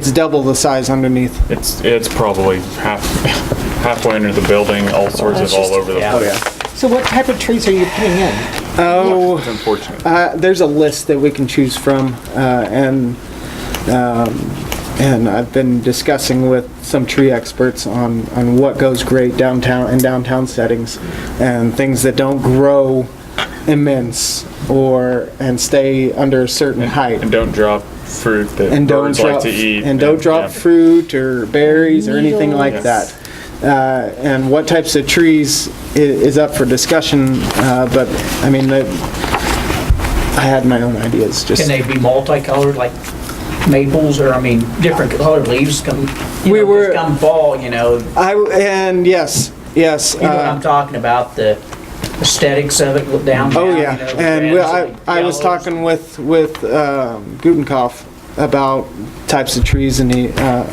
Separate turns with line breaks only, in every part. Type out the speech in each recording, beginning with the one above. It's double the size underneath.
It's, it's probably half, halfway under the building, all sorts of all over the
yeah.
place.
So what type of trees are you putting in?
Oh,
It's unfortunate.
uh, there's a list that we can choose from, uh, and, um, and I've been discussing with some tree experts on, on what goes great downtown, in downtown settings, and things that don't grow immense or, and stay under a certain height.
And don't drop fruit that
and don't
birds like
drop
to eat.
and don't drop
yeah.
fruit or berries or anything like
Yes.
that. Uh, and what types of trees i- is up for discussion, uh, but I mean, the- I had my own ideas. Just
Can they be multicolored, like maples, or, I mean, different colored leaves come, you
We
know,
were-
just come fall, you know? You
I w- and yes, yes.
know what I'm
Uh,
talking about, the aesthetics of it look down.
oh yeah, and we, I I was talking with with um, Gutenkauf about types of trees, and he. Uh,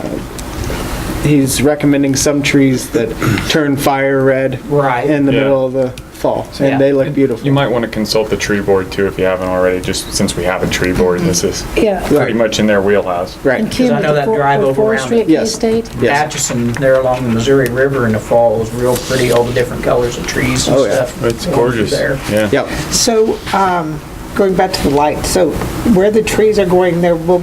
He's recommending some trees that turn fire red
Right.
in the
Yeah.
middle of the fall, and
Yeah.
they look beautiful.
You might want to consult the tree board too if you haven't already, just since we have a tree board, this is
Yeah.
pretty much in their wheelhouse.
And
Right.
Kim,
I know
with the
that
for-
drive
with
over around
forestry
it.
at K
Yes.
State,
Yes.
Atchison, there along the Missouri River in the fall is real pretty, all the different colors of trees and
Oh, yeah.
stuff.
It's
going
gorgeous.
through there.
Yeah.
Yep.
So, um, going back to the light, so where the trees are going, there will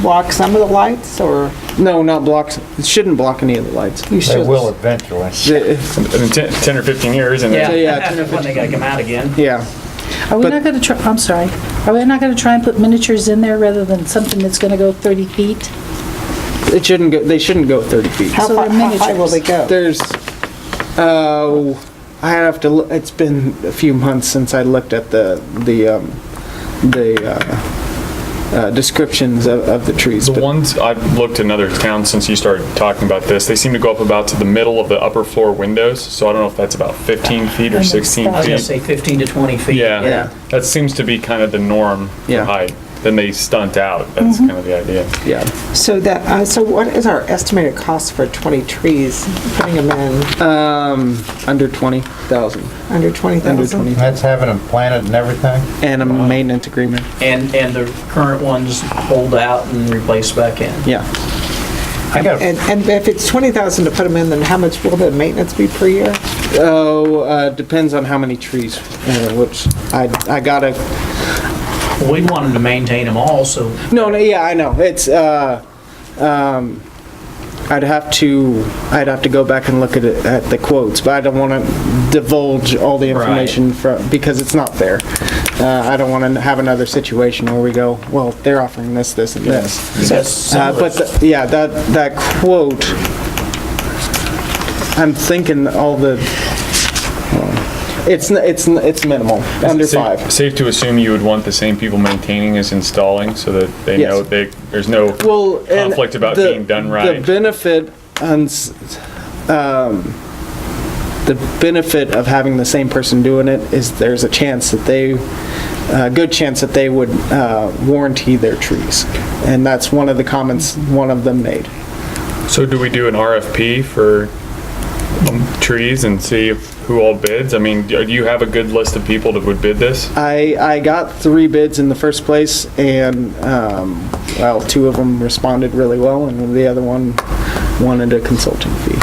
block some of the lights, or
No, not blocks. It shouldn't block any of the lights.
you should?
They will eventually.
The-
In 10 10 or 15 years and
Yeah,
then
yeah, ten or
Yeah, when they gotta come out again.
Yeah.
Are we
But-
not going to try, I'm sorry, are we not going to try and put miniatures in there rather than something that's going to go 30 feet?
It shouldn't go, they shouldn't go 30 feet.
How
So
far,
they're
how high will they go?
There's, uh, I have to, loo- it's been a few months since I looked at the, the, um, the, uh, uh, descriptions of, of the trees.
The
but-
ones, I've looked in other towns since you started talking about this, they seem to go up about to the middle of the upper floor windows, so I don't know if that's about 15 feet or
And
16
it's-
I was gonna
feet.
say 15 to 20 feet.
Yeah.
Yeah, that seems to be kind of the norm
Yeah.
for height. Then they stunt out. That's kind of the idea.
Yeah.
So that, uh, so what is our estimated cost for 20 trees, putting them in, Uh,
Um, under 20,000.
under
Under
20,000?
20.
That's having them planted and everything.
And a maintenance agreement.
And, and the current ones hold out and replaced back in.
Yeah.
I got,
And, and if it's 20,000 to put them in, then how much will the maintenance be per year?
Oh, uh, depends on how many trees, uh, which I, I gotta
We want them to maintain them all, so
No, no, yeah, I know. It's, uh, um, I'd have to, I'd have to go back and look at it, at the quotes, but I don't want to divulge all the
Right.
information from, because it's not fair. Uh, I don't want to have another situation where we go, well, they're offering this, this, and this.
that's
Uh,
some
but,
of it.
the- yeah, that, that quote, I'm thinking all the, it's, n- it's, n- it's minimal, under
Sa-
five.
Safe to assume you would want the same people maintaining as installing, so that they
Yes.
know they, there's no,
well, and
conflict about
the-
being done right.
The benefit and s- um, the benefit of having the same person doing it is there's a chance that they, a good chance that they would uh, warranty their trees, and that's one of the comments one of them made.
so do we do an RFP for um, trees and see if- who all bids? I mean, do you have a good list of people that would bid this?
I, I got three bids in the first place, and, um, well, two of them responded really well, and the other one wanted a consulting fee.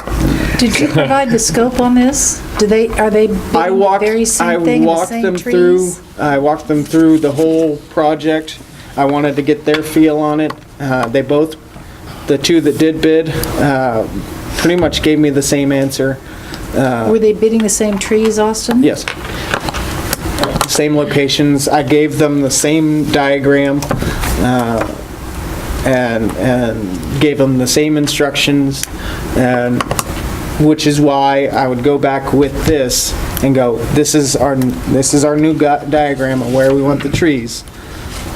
Did you provide the scope on this? Do they, are they
I
bidding the
walked,
very same
I
thing, and the
walked them
same
through,
trees?
I walked them through the whole project. I wanted to get their feel on it. Uh, They both, the two that did bid, uh, pretty much gave me the same answer. uh,
Were they bidding the same trees, Austin?
Yes. Same locations. I gave them the same diagram uh, and, and gave them the same instructions. And, which is why I would go back with this and go, this is our, this is our new gu- diagram of where we want the trees.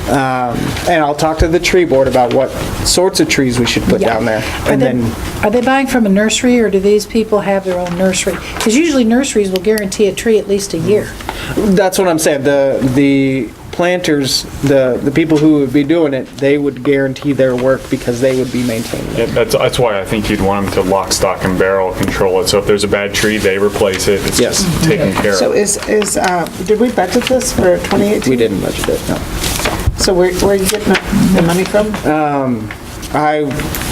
Um, And I'll talk to the tree board about what sorts of trees we should put
Yeah.
down there.
Are
And
they-
then,
Are they buying from a nursery, or do these people have their own nursery? Because usually nurseries will guarantee a tree at least a year.
That's what I'm saying, the, the planters, the, the people who would be doing it, they would guarantee their work because they would be maintaining it.
Yeah, that's, that's why I think you'd want them to lock, stock, and barrel control it. So if there's a bad tree, they replace it. It's
Yes.
just taken care
So
of.
is, is, uh, did we budget this for 2018?
We didn't budget it, no.
So where, where are you getting the money from?
I